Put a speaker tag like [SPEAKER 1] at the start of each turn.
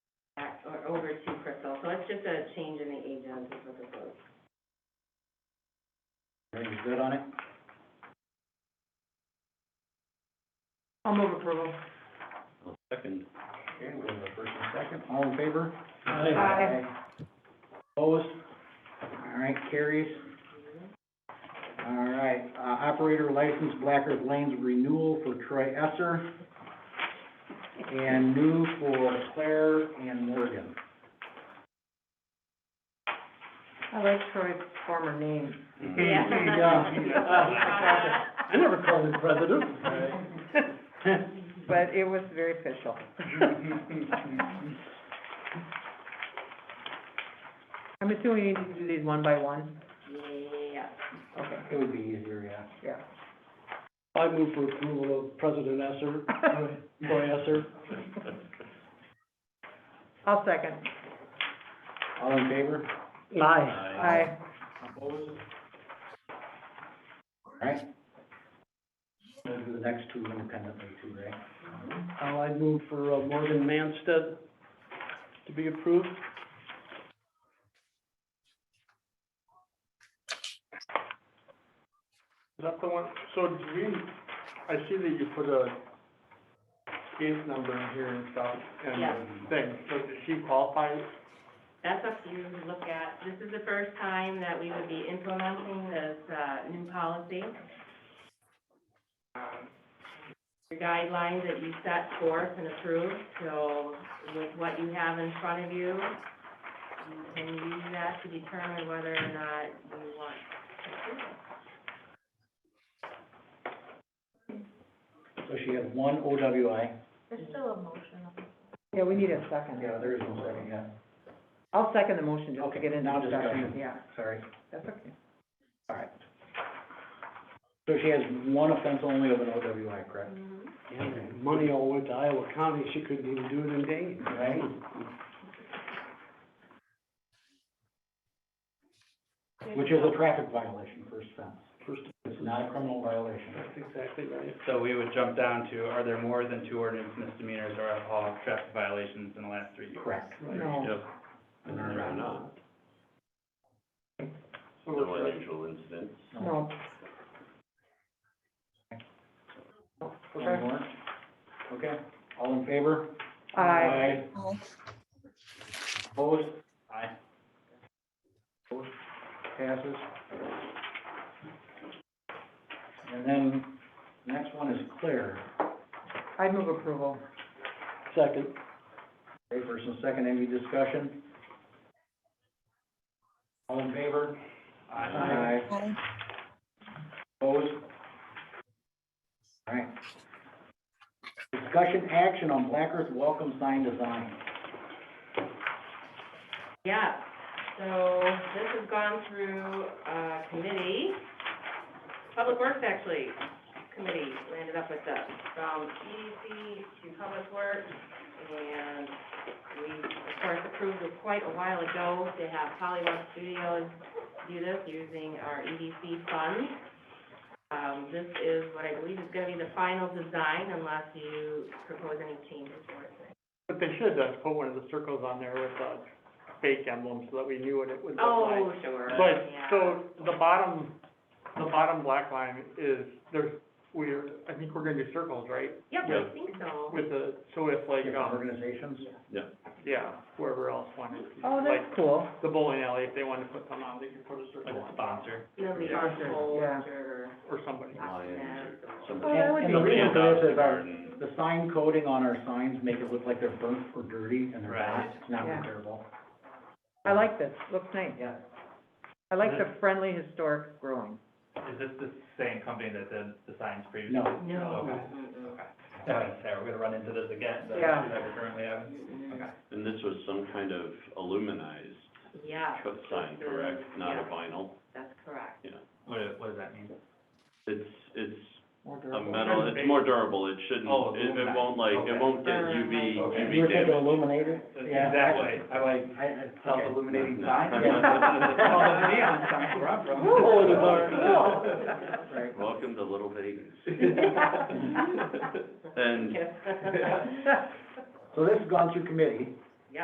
[SPEAKER 1] it's just a change in the agent is what this is.
[SPEAKER 2] Everybody's good on it?
[SPEAKER 3] I'll move approval.
[SPEAKER 2] Second. Okay, we have a first and second, all in favor?
[SPEAKER 3] Aye.
[SPEAKER 2] Opposed? All right, carries. All right, uh, operator license Black Earth Lanes renewal for Troy Esser and new for Claire and Morgan.
[SPEAKER 3] I like Troy's former name.
[SPEAKER 4] Yeah. I never called him president.
[SPEAKER 3] But it was very official. I'm assuming you need to do these one by one?
[SPEAKER 1] Yeah.
[SPEAKER 3] Okay,
[SPEAKER 2] It would be easier, yeah.
[SPEAKER 3] yeah.
[SPEAKER 4] I move for approval of President Esser, Troy Esser.
[SPEAKER 3] I'll second.
[SPEAKER 2] All in favor?
[SPEAKER 4] Aye.
[SPEAKER 3] Aye.
[SPEAKER 2] Opposed? All right. We'll do the next two independently too, right?
[SPEAKER 4] Uh, I move for uh, Morgan Manstead to be approved.
[SPEAKER 5] Is that the one, so do we, I see that you put a case number in here and stuff,
[SPEAKER 1] Yeah.
[SPEAKER 5] and thing, so does she qualify?
[SPEAKER 1] That's up to you to look at. This is the first time that we would be implementing this, uh, new policy. Um, Your guidelines that you set forth and approved, so with what you have in front of you, you can use that to determine whether or not you want
[SPEAKER 2] So she has one OWI.
[SPEAKER 6] There's still a motion.
[SPEAKER 3] Yeah, we need a second.
[SPEAKER 2] Yeah, there is no second, yeah.
[SPEAKER 3] I'll second the motion just to
[SPEAKER 2] Okay,
[SPEAKER 3] get into
[SPEAKER 2] now
[SPEAKER 3] discussion.
[SPEAKER 2] discussion.
[SPEAKER 3] Yeah,
[SPEAKER 2] Sorry.
[SPEAKER 3] that's okay.
[SPEAKER 2] All right. So she has one offense only of an OWI, correct?
[SPEAKER 4] Yeah, Money all went to Iowa County, she couldn't even do it in Dayton.
[SPEAKER 2] Right. Which is a traffic violation, first offense.
[SPEAKER 4] First,
[SPEAKER 2] It's not a criminal violation.
[SPEAKER 5] That's exactly right.
[SPEAKER 7] So we would jump down to, are there more than two ordinance misdemeanors or alcohol traffic violations in the last three years?
[SPEAKER 2] Correct.
[SPEAKER 3] No.
[SPEAKER 7] Yep. And there are not.
[SPEAKER 5] So we're good.
[SPEAKER 3] No,
[SPEAKER 2] One more? Okay, all in favor?
[SPEAKER 3] aye.
[SPEAKER 6] Aye.
[SPEAKER 2] Opposed?
[SPEAKER 7] Aye.
[SPEAKER 2] Passes. And then, next one is Claire.
[SPEAKER 3] I move approval.
[SPEAKER 4] second.
[SPEAKER 2] Okay, first and second, any discussion? All in favor?
[SPEAKER 3] Aye.
[SPEAKER 6] Aye.
[SPEAKER 2] Opposed? All right. Discussion action on Black Earth welcome sign design.
[SPEAKER 1] Yeah, so this has gone through, uh, committee, Public Works actually, committee landed up with this, from EDC to Public Works, and we, of course, approved it quite a while ago to have Hollywood Studios do this using our EDC funds. Um, this is what I believe is gonna be the final design unless you propose any changes for it.
[SPEAKER 5] But they should, uh, put one of the circles on there with a fake emblem, so that we knew what it was.
[SPEAKER 1] Oh, sure,
[SPEAKER 5] But,
[SPEAKER 1] yeah.
[SPEAKER 5] so, the bottom, the bottom black line is, there's, we're, I think we're gonna do circles, right?
[SPEAKER 1] Yep, I think so.
[SPEAKER 5] With the, so if like, um,
[SPEAKER 2] Organizations?
[SPEAKER 5] yeah, whoever else wanted to.
[SPEAKER 3] Oh,
[SPEAKER 5] like,
[SPEAKER 3] that's cool.
[SPEAKER 5] the bowling alley, if they wanted to put some on, they could put a circle
[SPEAKER 7] Like a
[SPEAKER 5] on,
[SPEAKER 7] sponsor.
[SPEAKER 1] Nobody
[SPEAKER 7] Yeah.
[SPEAKER 1] got told
[SPEAKER 3] Yeah.
[SPEAKER 1] or
[SPEAKER 5] or somebody.
[SPEAKER 1] Lions
[SPEAKER 3] Oh, that would
[SPEAKER 2] And
[SPEAKER 3] be
[SPEAKER 2] the reason
[SPEAKER 7] Hand
[SPEAKER 2] for
[SPEAKER 7] out
[SPEAKER 2] this
[SPEAKER 7] the
[SPEAKER 2] is our,
[SPEAKER 7] garden.
[SPEAKER 2] the sign coding on our signs make it look like they're burnt or dirty, and they're not,
[SPEAKER 7] Right.
[SPEAKER 2] it's not
[SPEAKER 3] Yeah.
[SPEAKER 2] repairable.
[SPEAKER 3] I like this. Looks nice.
[SPEAKER 2] Yeah.
[SPEAKER 3] I like the friendly historic growing.
[SPEAKER 7] Is this the same company that did the signs previously?
[SPEAKER 2] No.
[SPEAKER 1] No.
[SPEAKER 7] Okay.
[SPEAKER 1] Mm-mm.
[SPEAKER 7] Okay. I was gonna say, we're gonna run into this again, the issue
[SPEAKER 3] Yeah.
[SPEAKER 7] that we're currently having. Okay.
[SPEAKER 8] And this was some kind of aluminized
[SPEAKER 1] Yeah,
[SPEAKER 8] cut sign, correct? Not a
[SPEAKER 1] Yeah.
[SPEAKER 8] vinyl?
[SPEAKER 1] that's correct.
[SPEAKER 7] What, what does that mean?
[SPEAKER 8] It's, it's
[SPEAKER 2] More
[SPEAKER 8] a
[SPEAKER 2] durable.
[SPEAKER 8] metal, it's more durable, it shouldn't,
[SPEAKER 7] Oh,
[SPEAKER 8] it, it
[SPEAKER 7] aluminum.
[SPEAKER 8] won't like,
[SPEAKER 7] Okay.
[SPEAKER 8] it won't get
[SPEAKER 1] Burn,
[SPEAKER 8] UV,
[SPEAKER 1] like-
[SPEAKER 2] You were
[SPEAKER 8] UV
[SPEAKER 2] thinking
[SPEAKER 8] damage.
[SPEAKER 2] illuminated? Yeah.
[SPEAKER 7] Exactly, I like
[SPEAKER 2] I, I, okay.
[SPEAKER 7] self-illuminating
[SPEAKER 8] No.
[SPEAKER 7] signs.
[SPEAKER 2] Yeah.
[SPEAKER 7] All the neon signs where I'm from.
[SPEAKER 2] Oh,
[SPEAKER 3] the
[SPEAKER 2] Right.
[SPEAKER 8] Welcome to Little Vegas.
[SPEAKER 1] Yeah.
[SPEAKER 8] And
[SPEAKER 1] Yeah.
[SPEAKER 2] So this has gone through committee,